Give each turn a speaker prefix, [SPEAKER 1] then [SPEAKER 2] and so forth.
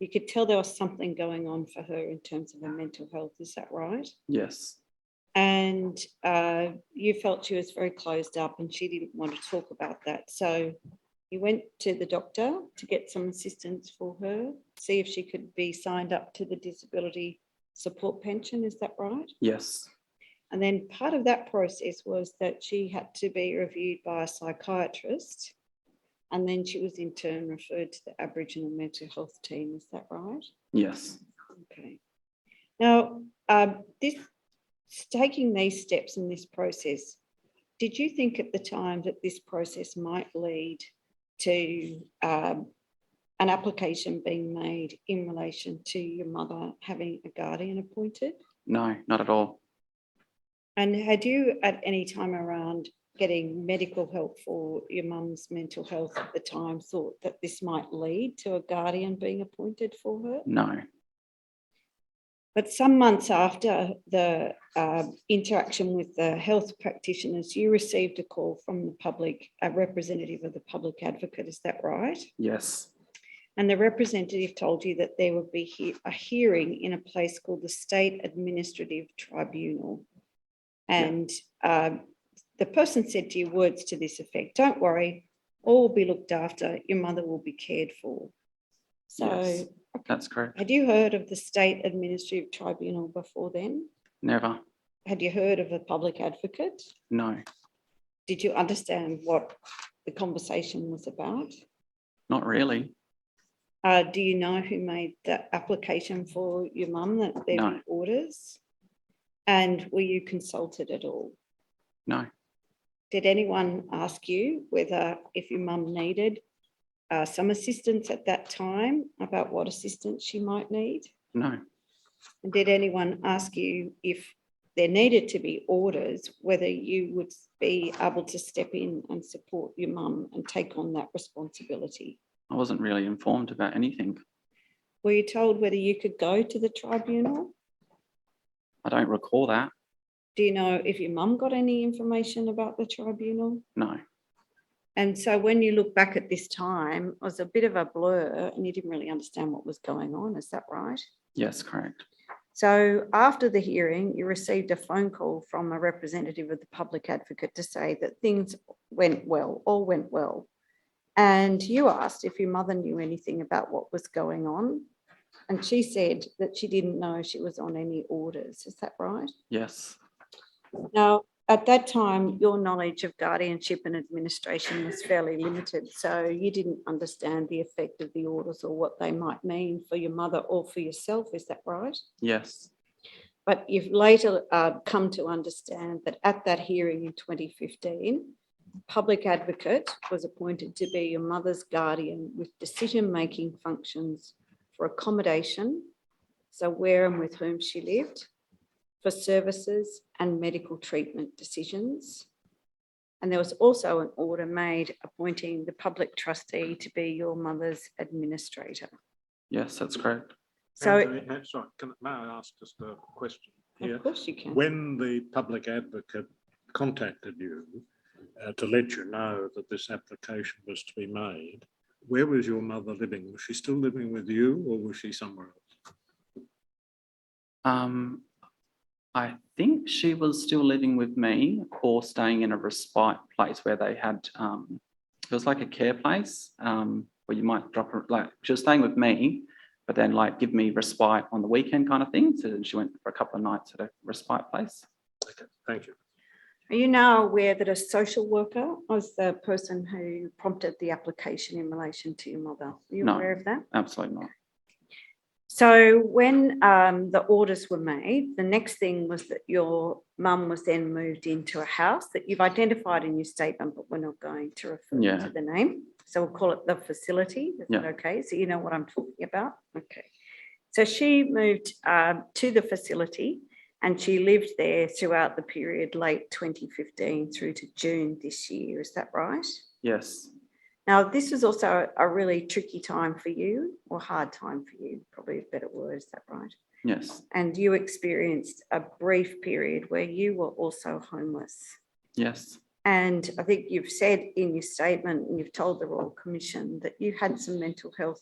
[SPEAKER 1] you could tell there was something going on for her in terms of her mental health. Is that right?
[SPEAKER 2] Yes.
[SPEAKER 1] And uh, you felt she was very closed up and she didn't want to talk about that. So you went to the doctor to get some assistance for her, see if she could be signed up to the disability support pension. Is that right?
[SPEAKER 2] Yes.
[SPEAKER 1] And then part of that process was that she had to be reviewed by a psychiatrist. And then she was in turn referred to the Aboriginal mental health team. Is that right?
[SPEAKER 2] Yes.
[SPEAKER 1] Okay. Now, um, this, taking these steps in this process, did you think at the time that this process might lead to um, an application being made in relation to your mother having a guardian appointed?
[SPEAKER 2] No, not at all.
[SPEAKER 1] And had you at any time around getting medical help for your mum's mental health at the time thought that this might lead to a guardian being appointed for her?
[SPEAKER 2] No.
[SPEAKER 1] But some months after the um, interaction with the health practitioners, you received a call from the public, a representative of the public advocate, is that right?
[SPEAKER 2] Yes.
[SPEAKER 1] And the representative told you that there would be he- a hearing in a place called the State Administrative Tribunal. And um, the person said to you words to this effect, don't worry, all will be looked after, your mother will be cared for.
[SPEAKER 2] Yes.
[SPEAKER 1] So
[SPEAKER 2] That's correct.
[SPEAKER 1] had you heard of the State Administrative Tribunal before then?
[SPEAKER 2] Never.
[SPEAKER 1] Had you heard of a public advocate?
[SPEAKER 2] No.
[SPEAKER 1] Did you understand what the conversation was about?
[SPEAKER 2] Not really.
[SPEAKER 1] Uh, do you know who made the application for your mum that there
[SPEAKER 2] No.
[SPEAKER 1] were orders? And were you consulted at all?
[SPEAKER 2] No.
[SPEAKER 1] Did anyone ask you whether if your mum needed uh, some assistance at that time about what assistance she might need?
[SPEAKER 2] No.
[SPEAKER 1] And Did anyone ask you if there needed to be orders, whether you would be able to step in and support your mum and take on that responsibility?
[SPEAKER 2] I wasn't really informed about anything.
[SPEAKER 1] Were you told whether you could go to the tribunal?
[SPEAKER 2] I don't recall that.
[SPEAKER 1] Do you know if your mum got any information about the tribunal?
[SPEAKER 2] No.
[SPEAKER 1] And so when you look back at this time, it was a bit of a blur and you didn't really understand what was going on, is that right?
[SPEAKER 2] Yes, correct.
[SPEAKER 1] So after the hearing, you received a phone call from a representative of the public advocate to say that things went well, all went well. And you asked if your mother knew anything about what was going on. And she said that she didn't know she was on any orders. Is that right?
[SPEAKER 2] Yes.
[SPEAKER 1] Now, at that time, your knowledge of guardianship and administration was fairly limited. So you didn't understand the effect of the orders or what they might mean for your mother or for yourself. Is that right?
[SPEAKER 2] Yes.
[SPEAKER 1] But you've later uh, come to understand that at that hearing in 2015, public advocate was appointed to be your mother's guardian with decision-making functions for accommodation, so where and with whom she lived, for services and medical treatment decisions. And there was also an order made appointing the public trustee to be your mother's administrator.
[SPEAKER 2] Yes, that's correct.
[SPEAKER 1] So,
[SPEAKER 3] Anthony, uh, Sorry, can, may I ask just a question here?
[SPEAKER 1] of course you can.
[SPEAKER 3] uh, When the public advocate contacted you uh, to let you know that this application was to be made, where was your mother living? Was she still living with you or was she somewhere else?
[SPEAKER 2] Um, I think she was still living with me or staying in a respite place where they had, um, it was like a care place, um, where you might drop her, like, she was staying with me, but then like give me respite on the weekend kind of thing. So then she went for a couple of nights at a respite place.
[SPEAKER 3] Okay, Thank you.
[SPEAKER 1] Are you now aware that a social worker was the person who prompted the application in relation to your mother? Are you
[SPEAKER 2] No.
[SPEAKER 1] aware of that?
[SPEAKER 2] Absolutely not.
[SPEAKER 1] So when um, the orders were made, the next thing was that your mum was then moved into a house that you've identified in your statement, but we're not going to refer
[SPEAKER 2] Yeah.
[SPEAKER 1] to the name. So we'll call it the facility. Is that
[SPEAKER 2] Yeah.
[SPEAKER 1] okay? So you know what I'm talking about? Okay. So she moved um, to the facility and she lived there throughout the period late 2015 through to June this year. Is that right?
[SPEAKER 2] Yes.
[SPEAKER 1] Now, this was also a really tricky time for you, or hard time for you, probably a better word, is that right?
[SPEAKER 2] Yes.
[SPEAKER 1] And you experienced a brief period where you were also homeless.
[SPEAKER 2] Yes.
[SPEAKER 1] And I think you've said in your statement, and you've told the Royal Commission that you had some mental health